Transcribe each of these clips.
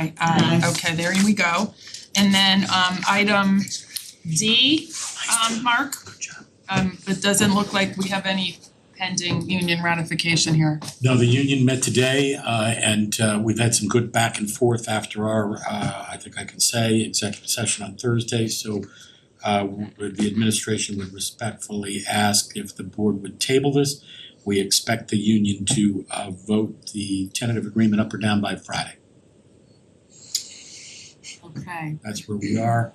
Aye. Aye, okay, there we go. And then um item D, um Mark. Um it doesn't look like we have any pending union ratification here. No, the union met today uh and uh we've had some good back and forth after our uh I think I can say executive session on Thursday, so uh w- the administration would respectfully ask if the board would table this. We expect the union to uh vote the tentative agreement up or down by Friday. Okay. That's where we are.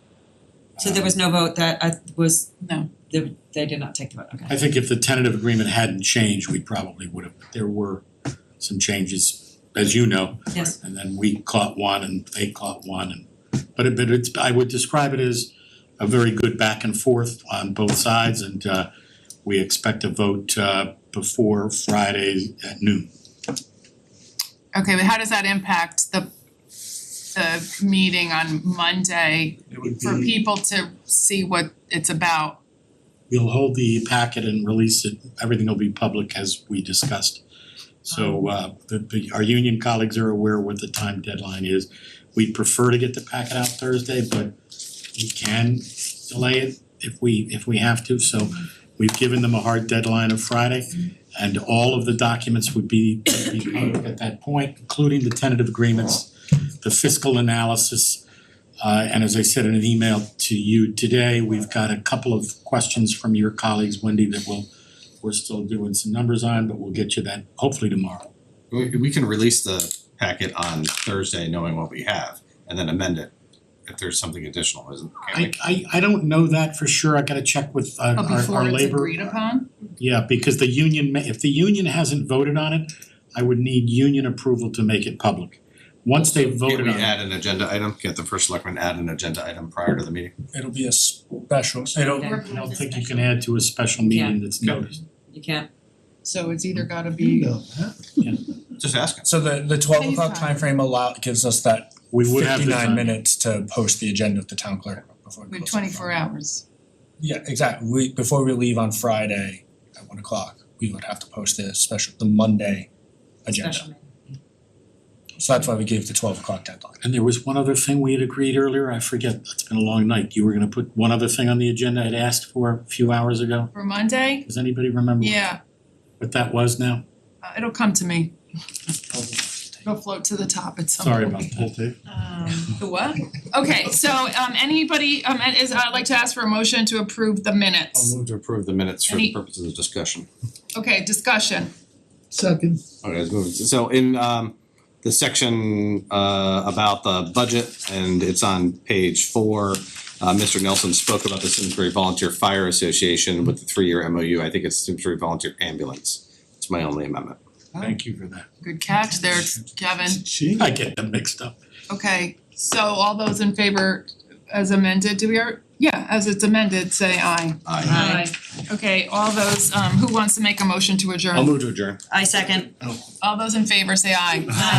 So there was no vote that I was, No, they they did not take the vote, okay. I think if the tentative agreement hadn't changed, we probably would have, there were some changes, as you know. Yes. And then we caught one and they caught one and, but it, but it's, I would describe it as a very good back and forth on both sides and uh we expect a vote uh before Friday at noon. okay, but how does that impact the the meeting on Monday It would for people to see what it's about? We'll hold the packet and release it, everything will be public as we discussed. So uh the the our union colleagues are aware what the time deadline is. We'd prefer to get the packet out Thursday, but we can delay it if we if we have to, so we've given them a hard deadline of Friday. And all of the documents would be would be public at that point, including the tentative agreements, the fiscal analysis, uh and as I said in an email to you today, we've got a couple of questions from your colleagues, Wendy, that we'll we're still doing some numbers on, but we'll get you that hopefully tomorrow. We we can release the packet on Thursday knowing what we have and then amend it if there's something additional, isn't can I we? I I don't know that for sure. I gotta check with uh Oh, our before our it's labor. agreed upon? Yeah, because the union, ma- if the union hasn't voted on it, I would need union approval to make it public. Once they've Can voted we on it, add an agenda item? Can the first selectman add an agenda item prior to the meeting? It'll be a special, I don't, I don't think you can add to a special meeting that's Yeah. noticed. You can't, So it's either gotta be, Just ask us. so the the twelve o'clock Anytime. timeframe allow gives us that We would have fifty the time. nine minutes to post the agenda with the town clerk before we we have close on twenty four Friday. hours. Yeah, exactly, we before we leave on Friday at one o'clock, we would have to post the special, the Monday agenda. special meeting. So that's why we gave the twelve o'clock deadline. And there was one other thing we had agreed earlier, I forget, it's been a long night, you were gonna put one other thing on the agenda I'd asked for a few hours ago. For Monday? Does anybody remember Yeah, what that was now? uh, it'll come to me. It'll float to the top at some point. Sorry about that. The what? Okay, so um anybody um is I'd like to ask for a motion to approve the minutes. I'll move to approve the minutes for Any- the purposes of discussion. Okay, discussion. Second. Okay, let's move. So in um the section uh about the budget and it's on page four. Uh Mr. Nelson spoke about the Simsbury Volunteer Fire Association with the three-year MOU. I think it's Simsbury Volunteer Ambulance. It's my only amendment. Thank you for that. Good catch there, Kevin. She. I get them mixed up. Okay, so all those in favor as amended, do we are, yeah, as it's amended, say aye. Aye. Aye. Okay, all those um who wants to make a motion to adjourn? I'll move to adjourn. I second. All those in favor, say aye. Aye.